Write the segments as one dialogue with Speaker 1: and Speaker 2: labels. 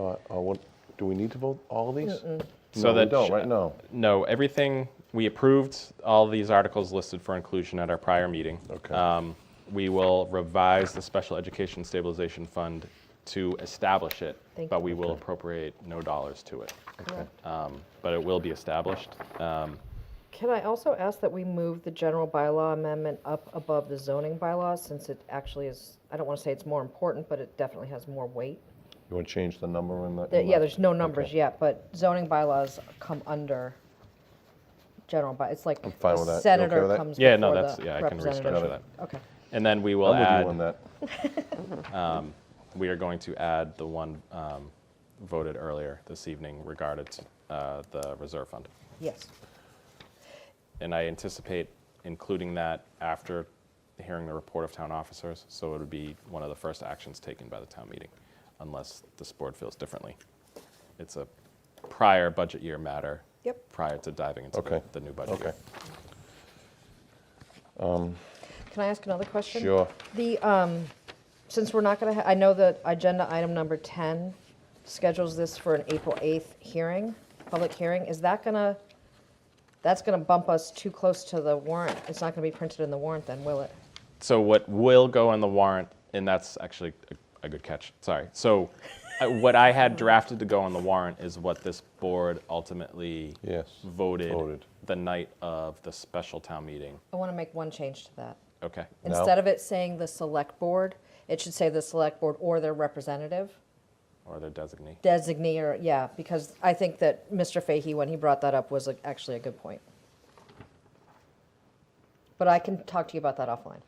Speaker 1: Uh, uh, what, do we need to vote all of these?
Speaker 2: So
Speaker 1: No, we
Speaker 2: that
Speaker 1: don't,
Speaker 2: sh-
Speaker 1: right? No.
Speaker 2: No, everything, we approved all these articles listed for inclusion at our prior meeting.
Speaker 1: Okay.
Speaker 2: Um, We will revise the Special Education Stabilization Fund to establish it,
Speaker 3: Thank
Speaker 2: but
Speaker 3: you.
Speaker 2: we will appropriate no dollars to it.
Speaker 1: Okay.
Speaker 2: Um, But it will be established. Um,
Speaker 3: Can I also ask that we move the general bylaw amendment up above the zoning bylaw, since it actually is, I don't want to say it's more important, but it definitely has more weight?
Speaker 1: You want to change the number in that?
Speaker 3: There-
Speaker 1: in
Speaker 3: Yeah,
Speaker 1: that?
Speaker 3: there's no numbers
Speaker 1: Okay.
Speaker 3: yet, but zoning bylaws come under general by, it's like
Speaker 1: fine with that.
Speaker 3: the
Speaker 1: You okay with
Speaker 3: senator
Speaker 1: that?
Speaker 3: comes
Speaker 2: Yeah,
Speaker 3: before
Speaker 2: no,
Speaker 3: the
Speaker 2: that's, yeah, I can restructure
Speaker 3: representative.
Speaker 2: that.
Speaker 3: Okay,
Speaker 2: And then we will
Speaker 1: I'm with
Speaker 2: add,
Speaker 1: you on that.
Speaker 2: we are going to add the one um, voted earlier this evening regarding uh, the reserve fund.
Speaker 3: yes.
Speaker 2: And I anticipate including that after hearing the report of town officers, so it would be one of the first actions taken by the town meeting, unless this board feels differently. It's a prior budget year matter.
Speaker 3: Yep.
Speaker 2: Prior to diving into the-
Speaker 1: Okay.
Speaker 2: the new budget
Speaker 1: Okay,
Speaker 2: year.
Speaker 3: Can I ask another question?
Speaker 1: sure.
Speaker 3: The, um, since we're not going to, I know that agenda item number 10 schedules this for an April 8th hearing, public hearing. Is that going to, that's going to bump us too close to the warrant? It's not going to be printed in the warrant then, will it?
Speaker 2: So what will go on the warrant, and that's actually a, a good catch. Sorry. So uh, what I had drafted to go on the warrant is what this board ultimately
Speaker 1: Yes.
Speaker 2: voted,
Speaker 1: Voted.
Speaker 2: the night of the special town meeting.
Speaker 3: I want to make one change to that.
Speaker 2: Okay.
Speaker 1: No.
Speaker 3: Instead of it saying the select board, it should say the select board or their representative,
Speaker 2: Or their designee.
Speaker 3: designee, or, yeah, because I think that Mr. Fahey, when he brought that up, was like, actually a good point. But I can talk to you about that offline.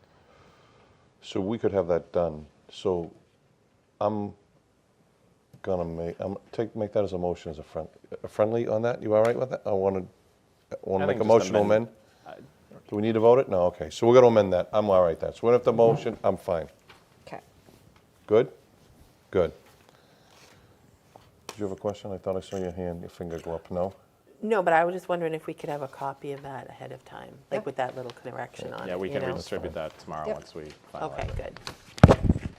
Speaker 1: So we could have that done. So I'm gonna make, I'm, take, make that as a motion as a friend, a friendly on that? You all right with that? I wanna, wanna
Speaker 2: I
Speaker 1: make
Speaker 2: think
Speaker 1: a motion
Speaker 2: just
Speaker 1: to amend?
Speaker 2: amend-
Speaker 1: Do we need to vote it? No, okay. So we're gonna amend that. I'm all right with that. So we don't
Speaker 2: Mm-hmm.
Speaker 1: have to motion, I'm fine.
Speaker 3: Okay.
Speaker 1: Good? Good. Did you have a question? I thought I saw your hand, your finger go up. No?
Speaker 4: No, but I was just wondering if we could have a copy of that ahead of time,
Speaker 3: Yeah.
Speaker 4: like with that little correction on it.
Speaker 2: Yeah, we
Speaker 4: you
Speaker 2: can
Speaker 4: know?
Speaker 2: redistribute that tomorrow
Speaker 3: Yep.
Speaker 2: once we finalize
Speaker 4: Okay,
Speaker 2: it.
Speaker 4: good.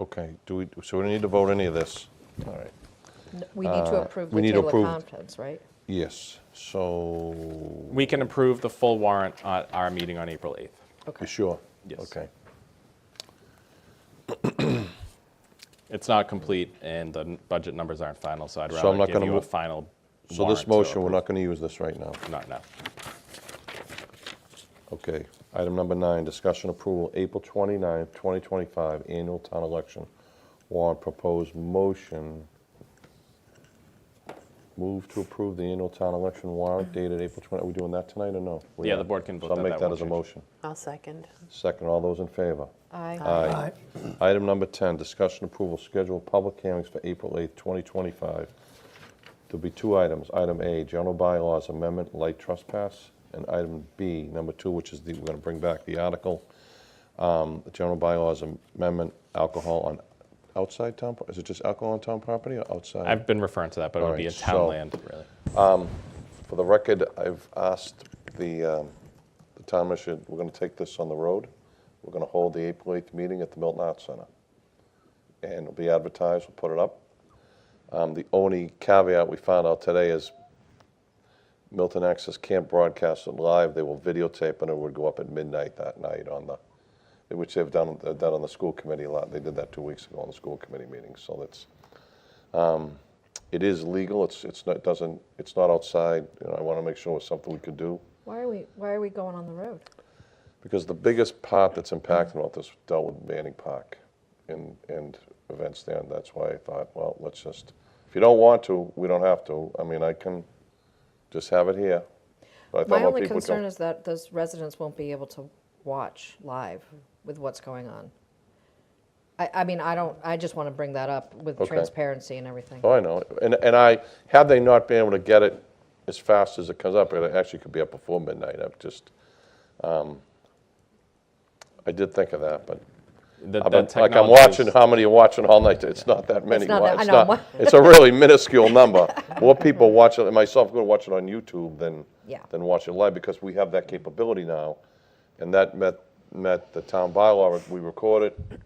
Speaker 1: Okay, do we, so we don't need to vote any of this? All right.
Speaker 3: We need to approve
Speaker 1: Uh, we
Speaker 3: the
Speaker 1: need to
Speaker 3: table of
Speaker 1: approve.
Speaker 3: contents, right?
Speaker 1: Yes, so,
Speaker 2: We can approve the full warrant at our meeting on April 8th.
Speaker 1: you
Speaker 3: Okay.
Speaker 1: sure?
Speaker 2: Yes.
Speaker 1: Okay.
Speaker 2: It's not complete and the n- budget numbers aren't final, so I'd
Speaker 1: So
Speaker 2: rather
Speaker 1: I'm not
Speaker 2: give
Speaker 1: gonna
Speaker 2: you
Speaker 1: move-
Speaker 2: a final
Speaker 1: So this
Speaker 2: warrant to
Speaker 1: motion, we're
Speaker 2: approve.
Speaker 1: not going to use this right now.
Speaker 2: Not now.
Speaker 1: Okay, item number nine, discussion approval, April 29, 2025, annual town election warrant proposed motion. Move to approve the annual town election warrant dated April 20, are we doing that tonight or no? We
Speaker 2: Yeah,
Speaker 1: are.
Speaker 2: the board can
Speaker 1: So
Speaker 2: vote that,
Speaker 1: I'll make
Speaker 2: that
Speaker 1: that
Speaker 2: won't
Speaker 1: as a
Speaker 2: change.
Speaker 1: motion.
Speaker 4: I'll second.
Speaker 1: Second, all those in favor?
Speaker 3: Aye.
Speaker 1: Aye. Item number 10, discussion approval, schedule public hearings for April 8th, 2025. There'll be two items. Item A, general bylaws amendment, light trespass, and item B, number two, which is the, we're going to bring back the article, um, general bylaws amendment, alcohol on outside town, pro- is it just alcohol on town property or outside?
Speaker 2: I've been referring to that, but it would be a
Speaker 1: Alright,
Speaker 2: town
Speaker 1: so-
Speaker 2: land, really.
Speaker 1: For the record, I've asked the, um, the town administrator, we're going to take this on the road. We're going to hold the April 8th meeting at the Milton Arts Center. And it'll be advertised, we'll put it up. Um, The only caveat we found out today is Milton Access can't broadcast it live. They will videotape and it would go up at midnight that night on the, which they've done, they've done on the school committee a lot. They did that two weeks ago on the school committee meeting, so that's, it is legal, it's, it's not, doesn't, it's not outside. You know, I want to make sure it's something we could do.
Speaker 3: Why are we, why are we going on the road?
Speaker 1: Because the biggest part that's impacted about this dealt with Manning Park and, and events there, and that's why I thought, well, let's just, if you don't want to, we don't have to. I mean, I can just have it here. But I thought
Speaker 3: My
Speaker 1: more
Speaker 3: only
Speaker 1: people would
Speaker 3: concern
Speaker 1: come.
Speaker 3: is that those residents won't be able to watch live with what's going on. I, I mean, I don't, I just want to bring that up with
Speaker 1: Okay.
Speaker 3: transparency and everything.
Speaker 1: Oh, I know, and, and I, had they not been able to get it as fast as it comes up, it actually could be up before midnight, I've just, um, I did think of that, but
Speaker 2: The-
Speaker 1: I've
Speaker 2: the
Speaker 1: been- Like I'm
Speaker 2: technology
Speaker 1: watching,
Speaker 2: is-
Speaker 1: how many are watching all night? It's not that many.
Speaker 3: not
Speaker 1: wa-
Speaker 3: that- I
Speaker 1: it's
Speaker 3: know.
Speaker 1: not- It's a really minuscule number. More people watch it, myself, go watch it on YouTube than,
Speaker 3: Yeah.
Speaker 1: than watch it live because we have that capability now. And that met, met the town bylaw, we record it,